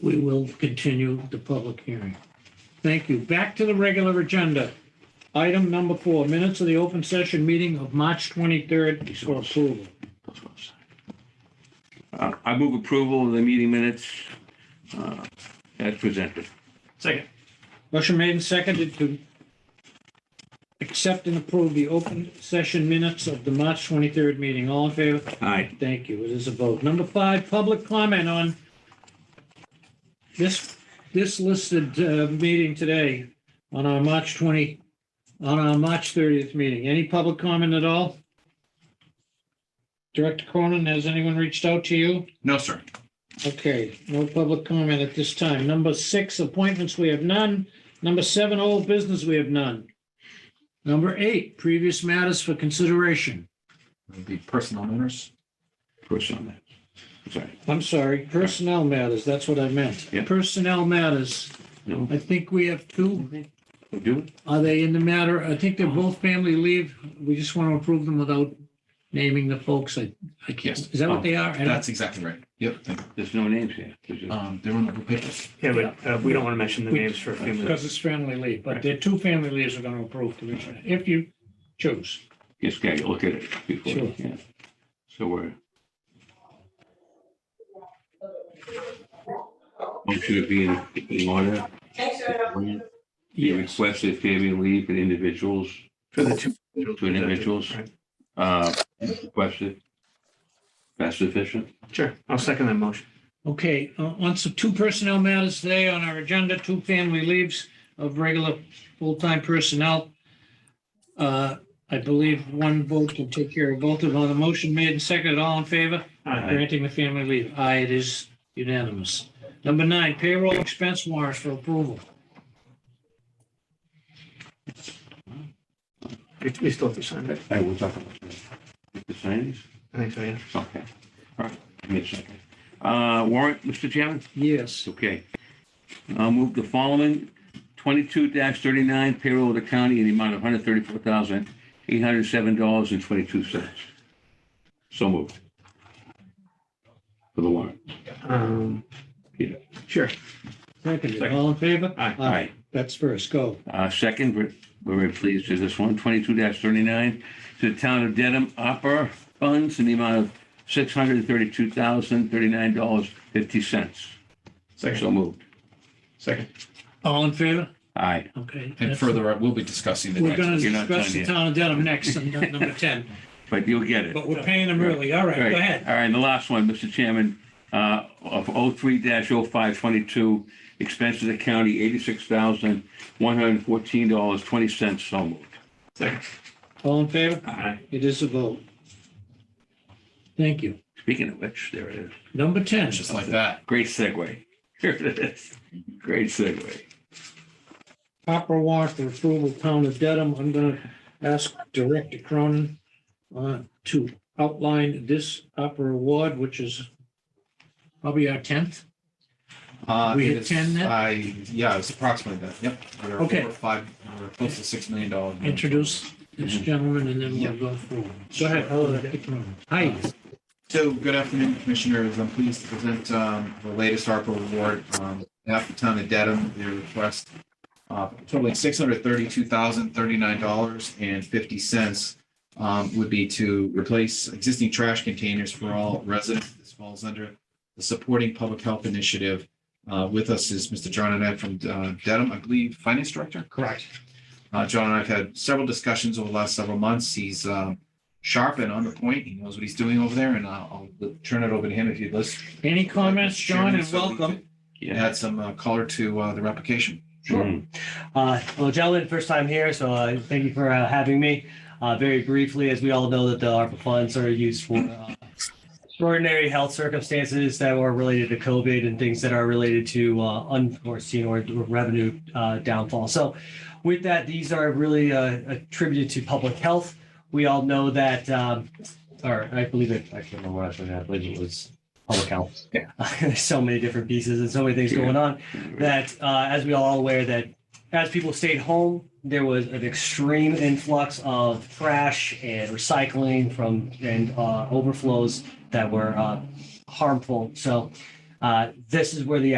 we will continue the public hearing. Thank you. Back to the regular agenda. Item number four, minutes of the open session meeting of March 23rd for approval. Uh, I move approval of the meeting minutes uh, as presented. Second. Motion made and seconded to accept and approve the open session minutes of the March 23rd meeting. All in favor? Aye. Thank you. It is a vote. Number five, public comment on this, this listed uh, meeting today on our March 20, on our March 30th meeting. Any public comment at all? Director Cronin, has anyone reached out to you? No, sir. Okay, no public comment at this time. Number six, appointments, we have none. Number seven, old business, we have none. Number eight, previous matters for consideration. It'd be personal matters. Push on that. Sorry. I'm sorry, personnel matters, that's what I meant. Yeah. Personnel matters, No, I think we have two. we do it? Are they in the matter? I think they're both family leave. We just want to approve them without naming the folks. I, I can't. Yes. Is that Oh, what they are? I don't- That's exactly right. Yep. thank you. There's no names here. There's just- Um, they're on the papers. Yeah, but uh, we don't want to mention the We- names for a few minutes. Because it's family leave, but there are two family leaves we're going to approve, Commissioner, if you choose. Just gotta look at it before, Sure. yeah. So we're. Motion to be in, in order. The request is Fabian leave for the individuals, For the two. two individuals, Right. uh, requested. That's sufficient? Sure, I'll second that motion. Okay, uh, on some two personnel matters today on our agenda, two family leaves of regular full-time personnel. Uh, I believe one vote can take care of both of them. On the motion made and seconded, all in favor? Aye. Granting the family leave. Aye, it is unanimous. Number nine, payroll expense warrants for approval. We we still have to sign it. I will talk about that. The signs? I think so, yeah. Okay, all right, give me a second. Uh, warrant, Mr. Chairman? Yes. Okay. I'll move the following, twenty-two thirty-nine payroll of the county in the amount of one hundred thirty-four thousand, eight hundred seven dollars and twenty-two cents. So moved. For the warrant. Um, Yeah. Sure. Seconded, Second. all in favor? Aye. Aye. That's first, go. Uh, second, we're we're very pleased with this one, twenty-two thirty-nine, to the town of Dedham Opera Funds in the amount of six hundred thirty-two thousand, thirty-nine dollars, fifty cents. So moved. Second. All in favor? Aye. Okay. And that's- further, uh, we'll be discussing the We're next. going to You're not discuss done the yet. town of Dedham next, on number 10, But you'll get it. but we're paying them early. All right, All right. go ahead. All right, and the last one, Mr. Chairman, uh, of 03-0522, expenses of the county, $86,114.20, so moved. Second. All in favor? Aye. It is a vote. Thank you. Speaking of which, there it is. Number 10. Just like that. Great segue. Here it is. Great segue. Proper warrant for approval, town of Dedham. I'm going to ask Director Cronin uh, to outline this opera award, which is probably our 10th. Uh, We it hit is- 10 net? I, yeah, it's approximately that. Yep. We're Okay. over Five, we're close to six million dollars. Introduce this gentleman and then we'll go through. Go ahead. Director Cronin. Hi. So good afternoon, Commissioners. I'm pleased to present um, the latest ARPA award um, half the town of Dedham. Their request uh, totaling six hundred thirty-two thousand thirty-nine dollars and fifty cents um, would be to replace existing trash containers for all residents. This falls under the Supporting Public Health Initiative. Uh, With us is Mr. John Annette from uh, Dedham, I believe, Finance Director? Correct. Uh, John and I have had several discussions over the last several months. He's um, sharp and on the point. He knows what he's doing over there, and I'll I'll turn it over to him if you'd list. Any comments, John, and welcome. Add some uh, color to uh, the replication. Mm. Uh, Well, gentlemen, first time here, so uh, thank you for uh, having me. Uh, Very briefly, as we all know that the ARPA funds are used for uh, extraordinary health circumstances that are related to COVID and things that are related to uh, unforeseen or revenue uh, downfall. So with that, these are really uh, attributed to public health. We all know that, um, or I believe it, I can't remember what I was looking at, I believe it was public health. Yeah. There's so many different pieces and so many things Yeah. going on that uh, as we all are aware that as people stayed home there was an extreme influx of trash and recycling from and uh, overflows that were uh, harmful so uh, this is where the